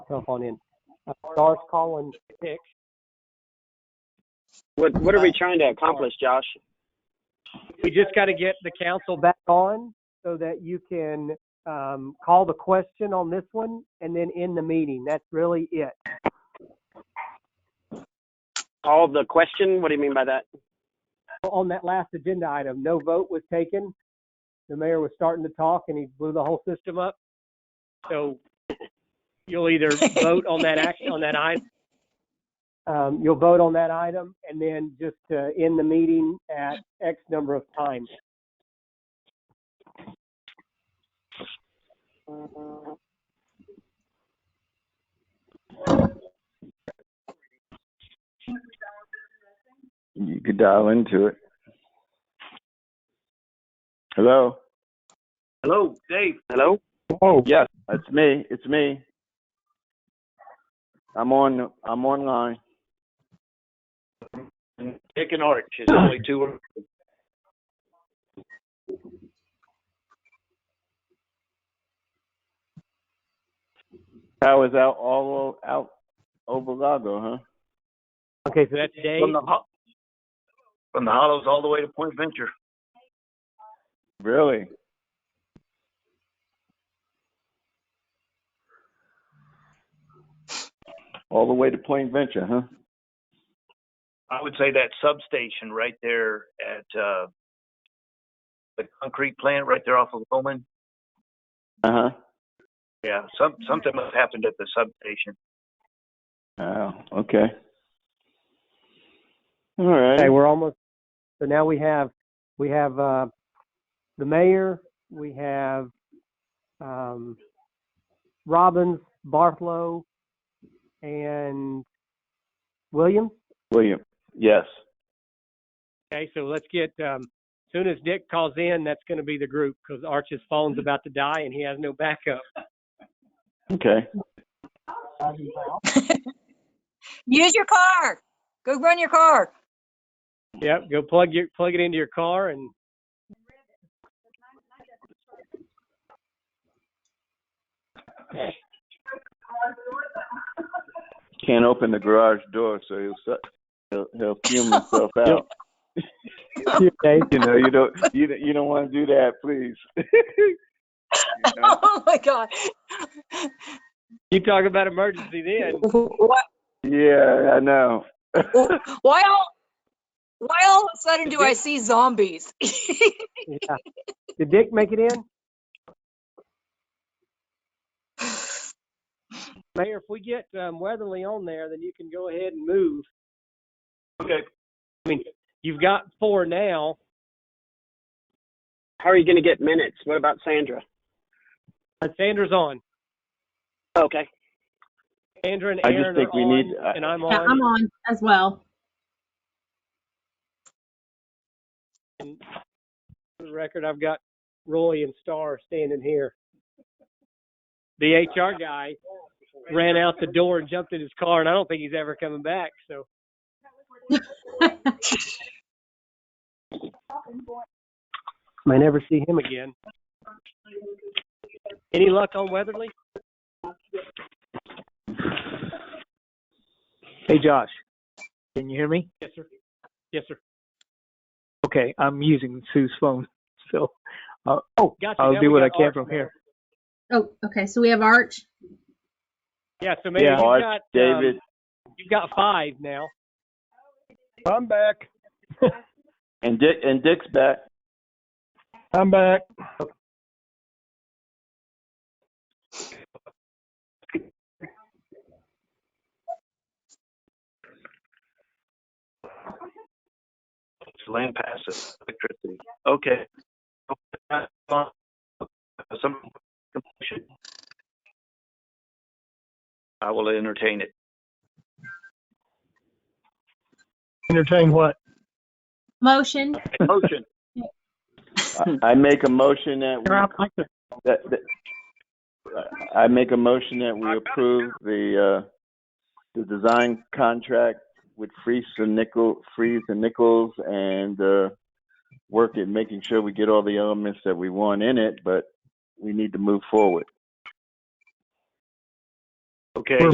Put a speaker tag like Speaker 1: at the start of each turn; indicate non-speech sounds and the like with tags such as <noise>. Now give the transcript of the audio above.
Speaker 1: myself on in. Uh, Lars Colin Hicks.
Speaker 2: What What are we trying to accomplish, Josh?
Speaker 1: We just got to get the council back on so that you can um, call the question on this one and then end the meeting. That's really it.
Speaker 2: Call the question. What do you mean by that?
Speaker 1: On that last agenda item, no vote was taken. The mayor was starting to talk and he blew the whole system up. So you'll either vote on that action, on that item. Um, you'll vote on that item and then just uh, end the meeting at X number of times.
Speaker 3: You could dial into it. Hello.
Speaker 2: Hello, Dave. Hello.
Speaker 3: Oh. Yes, it's me. It's me. I'm on. I'm online.
Speaker 2: Dick and Arch. It's only two.
Speaker 3: Power's out all o- out over Lago, huh?
Speaker 1: Okay, so that's Dave.
Speaker 4: From the, ho- from the Hollows all the way to Point Venture.
Speaker 3: Really? All the way to Plain Venture, huh?
Speaker 4: I would say that substation right there at uh, the concrete plant right there off of Bowman.
Speaker 3: Uh huh.
Speaker 4: Yeah, some something must have happened at the substation.
Speaker 3: Oh, okay. All right.
Speaker 1: Okay, we're almost, so now we have, we have, uh, the mayor, we have, um, Robbins, Barthlow, and Williams.
Speaker 3: William. Yes.
Speaker 1: Okay, so let's get, um, soon as Dick calls in, that's gonna be the group, because Arch's phone's about to die and he has no backup.
Speaker 3: Okay.
Speaker 5: Use your car. Go run your car.
Speaker 1: Yep, go plug your, plug it into your car and
Speaker 3: Can't open the garage door, so he'll su- he'll, he'll fume himself
Speaker 6: <laughs>
Speaker 3: out.
Speaker 1: Okay,
Speaker 3: <laughs> you know, you don't you don't- you don't want to do that, please. <laughs>
Speaker 5: <laughs> Oh my God.
Speaker 1: you talk about emergency then.
Speaker 5: Why,
Speaker 3: yeah, I know.
Speaker 5: why all, why all of a sudden do I see zombies?
Speaker 1: <laughs>
Speaker 5: <laughs>
Speaker 1: Yeah. Did Dick make it in? Mayor, if we get, um, Weatherly on there, then you can go ahead and move.
Speaker 4: Okay.
Speaker 1: I mean, you've got four now.
Speaker 2: How are you going to get minutes? What about Sandra?
Speaker 1: Uh, Sandra's on.
Speaker 2: Okay.
Speaker 1: Sandra and
Speaker 3: I just
Speaker 1: Aaron
Speaker 3: think
Speaker 1: are
Speaker 3: we
Speaker 1: on,
Speaker 3: need- I-
Speaker 1: and I'm
Speaker 7: Yeah,
Speaker 1: on.
Speaker 7: I'm on as well. <laughs>
Speaker 1: and for the record, I've got Roy and Star standing here. The HR guy ran out the door and jumped in his car, and I don't think he's ever coming back. So may never see him again. Any luck on Weatherly?
Speaker 8: Hey, Josh, can you hear me?
Speaker 1: Yes, sir. Yes, sir.
Speaker 8: Okay, I'm using Sue's phone, so
Speaker 1: Oh, gotcha.
Speaker 8: I'll
Speaker 1: Now
Speaker 8: do
Speaker 1: we
Speaker 8: what I
Speaker 1: got
Speaker 8: can
Speaker 1: Arch
Speaker 8: from
Speaker 1: now.
Speaker 8: here.
Speaker 7: Oh, okay, so we have Arch.
Speaker 1: Yeah, so maybe
Speaker 8: Yeah.
Speaker 1: you've
Speaker 3: Arch,
Speaker 1: got um,
Speaker 3: David,
Speaker 1: you've got five now.
Speaker 6: I'm back. <laughs>
Speaker 3: and Dick and Dick's back.
Speaker 6: I'm back.
Speaker 4: It's land passes electricity. Okay. Some I will entertain it.
Speaker 6: Entertain what?
Speaker 7: Motion.
Speaker 4: Motion.
Speaker 3: I, I make a motion that we
Speaker 6: I'd like to-
Speaker 3: that, that I make a motion that we approve the uh, the design contract with Freeze and Nickel, Freeze and Nichols, and uh, work at making sure we get all the elements that we want in it. But we need to move forward.
Speaker 9: Okay.
Speaker 4: We're